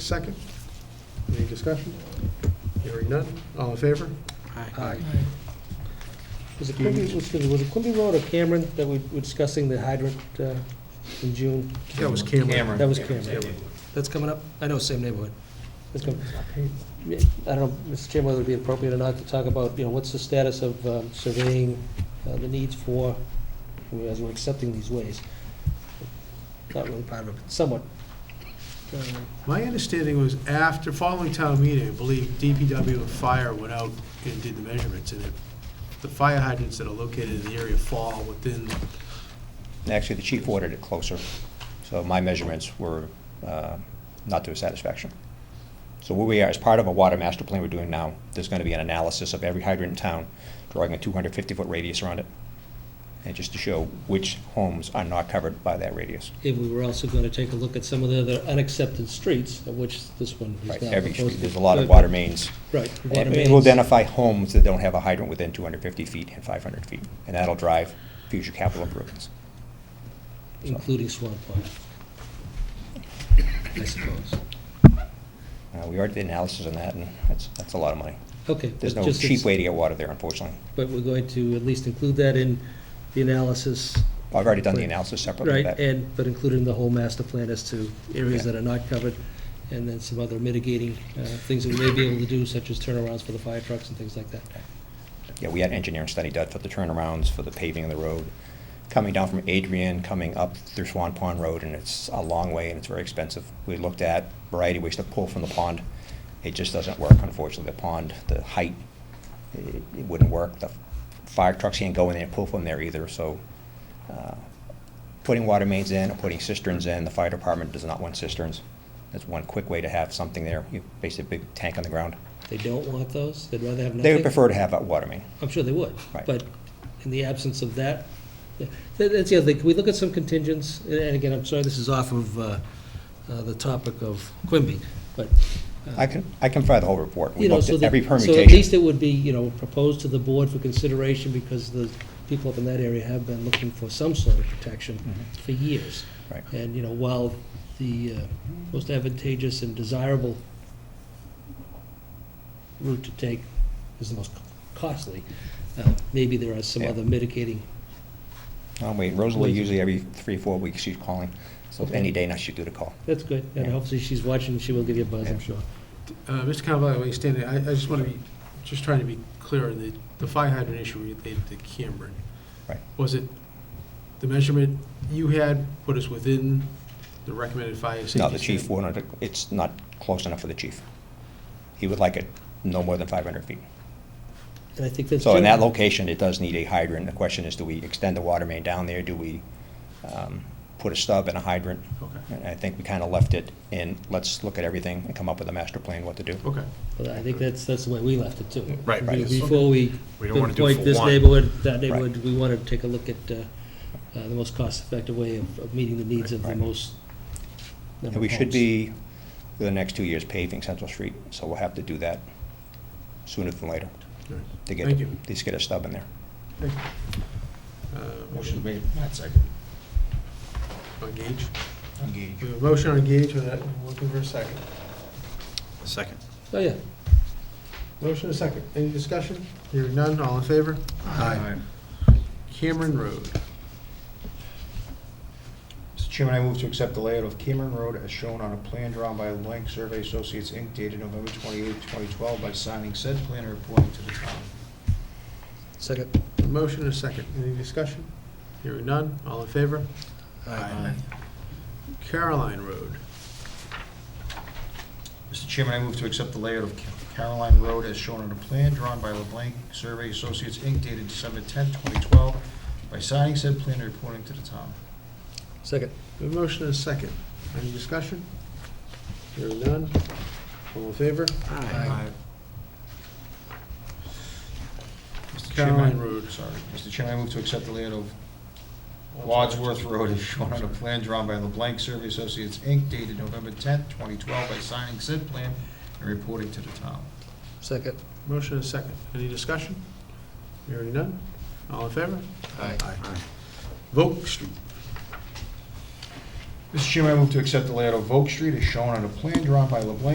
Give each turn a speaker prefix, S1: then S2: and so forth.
S1: Second, any discussion? Hearing none, all in favor? Aye.
S2: Was it Quimby, excuse me, was it Quimby Road or Cameron that we were discussing the hydrant uh, in June?
S1: That was Cameron.
S2: That was Cameron. That's coming up? I know, same neighborhood. That's coming- I don't know, Mr. Chairman, whether it'd be appropriate or not to talk about, you know, what's the status of um, surveying uh, the needs for, I mean, as we're accepting these ways? Not really part of it, but somewhat. Uh,
S1: My understanding was after, following town meeting, I believe DPW and fire went out and did the measurements, and it- the fire hydrants that are located in the area fall within,
S3: Actually, the chief ordered it closer, so my measurements were uh, not to his satisfaction. So where we are, as part of a water master plan we're doing now, there's going to be an analysis of every hydrant in town, drawing a 250-foot radius around it, and just to show which homes are not covered by that radius.
S2: And we were also going to take a look at some of the other unaccepted streets, of which this one is now
S3: Right,
S2: proposed.
S3: every street,
S2: to-
S3: there's a lot of water mains.
S2: Right. water
S3: And we'll
S2: mains.
S3: identify homes that don't have a hydrant within 250 feet and 500 feet, and that'll drive future capital improvements.
S2: including Swan Pond, I suppose.
S3: Uh, We already did analysis on that, and that's, that's a lot of money.
S2: Okay.
S3: There's
S2: but
S3: no
S2: just
S3: cheap
S2: it's-
S3: way to get water there, unfortunately.
S2: But we're going to at least include that in the analysis,
S3: I've already done the
S2: Right.
S3: analysis separately
S2: right?
S3: of that.
S2: And, but including the whole master plan as to areas
S3: Yeah.
S2: that are not covered, and then some other mitigating uh, things that we may be able to do, such as turnarounds for the fire trucks and things like that.
S3: Yeah, we had an engineering study done for the turnarounds, for the paving of the road, coming down from Adrian, coming up through Swan Pond Road, and it's a long way and it's very expensive. We looked at variety of ways to pull from the pond. It just doesn't work, unfortunately. The pond, the height, it it wouldn't work. The fire trucks can't go in there and pull from there either, so uh, putting water mains in, or putting cisterns in, the fire department does not want cisterns. That's one quick way to have something there, you basically a big tank on the ground.
S2: They don't want those, they'd rather have nothing.
S3: They would prefer to have a water main.
S2: I'm sure they would.
S3: Right.
S2: But in the absence of that, th- that's the other thing, can we look at some contingents? And- And again, I'm sorry, this is off of uh, uh, the topic of Quimby, but. uh,
S3: I can, I can provide the whole report. We
S2: you know,
S3: looked
S2: so
S3: at
S2: that-
S3: every
S2: So at least
S3: permutation.
S2: it would be, you know, proposed to the board for consideration, because the people up in that area have been looking for some sort of protection
S3: Mm-hmm.
S2: for years.
S3: Right.
S2: And, you know, while the uh, most advantageous and desirable route to take is the most costly, uh, maybe there are some
S3: Yeah.
S2: other mitigating,
S3: Oh, wait, Rosalie, usually every three, four weeks, she's calling. So
S2: Okay.
S3: any day now, she'd do the call.
S2: that's good, and
S3: Yeah.
S2: hopefully she's watching, she will give you a buzz, I'm
S3: Yeah.
S2: sure.
S1: uh, Mr. Cannavale, while you stand there, I, I just want to be, just trying to be clear, on the, the fire hydrant issue related to Cameron.
S3: Right.
S1: Was it, the measurement you had put us within the recommended fire safety?
S3: No, the chief
S1: standard?
S3: wanted, to- it's not close enough for the chief. He would like it no more than 500 feet.
S2: And I think that's.
S3: So in that
S2: generally-
S3: location, it does need a hydrant. The question is, do we extend the water main down there? Do we um, put a stub and a hydrant?
S1: Okay,
S3: And I think we kind of left it in, let's look at everything and come up with a master plan what to do.
S1: okay.
S2: But I think that's, that's the way we left it too.
S4: Right, right.
S2: Be- Before we
S4: We don't wanna do it
S2: pinpoint
S4: for
S2: this
S4: one.
S2: neighborhood, that neighborhood, we wanted to take a look at uh, uh, the most cost-effective way of of meeting the needs of the
S3: Right.
S2: most
S3: And
S2: number of
S3: we should
S2: homes.
S3: be, the next two years paving Central Street, so we'll have to do that sooner than later.
S1: All right.
S3: to get,
S1: Thank you.
S3: at least get a stub in there.
S1: Thank you. Uh,
S4: Motion made, Matt second.
S1: On Gage.
S4: Engage.
S1: We have a motion on Gage, uh, we're looking for a second.
S4: Second.
S2: Oh, yeah,
S1: Motion and a second. Any discussion? Hearing none, all in favor? Cameron Road.
S5: Mr. Chairman, I move to accept the layout of Cameron Road as shown on a plan drawn by Lang Survey Associates, Inc., dated November 28, 2012, by signing said plan and reporting to the town.
S2: second.
S1: Motion and a second. Any discussion? Hearing none, all in favor? Caroline Road.
S5: Mr. Chairman, I move to accept the layout of Caroline Road as shown on a plan drawn by LeBlanc Survey Associates, Inc., dated December 10, 2012, by signing said plan and reporting to the town.
S2: Second.
S1: We have a motion and a second. Any discussion? Hearing none, all in favor?
S5: Mr.
S1: Caroline
S5: Chairman,
S1: Road.
S5: Road, sorry. Mr. Chairman, I move to accept the layout of Wadsworth Road as shown on a plan drawn by LeBlanc Survey Associates, Inc., dated November 10th, 2012, by signing said plan and reporting to the town.
S2: Second.
S1: Motion and a second. Any discussion? Hearing none, all in favor?
S5: Aye.
S1: Volk Street.
S5: Mr. Chairman, I move to accept the layout of Oak Street as shown on a plan drawn by LeBlanc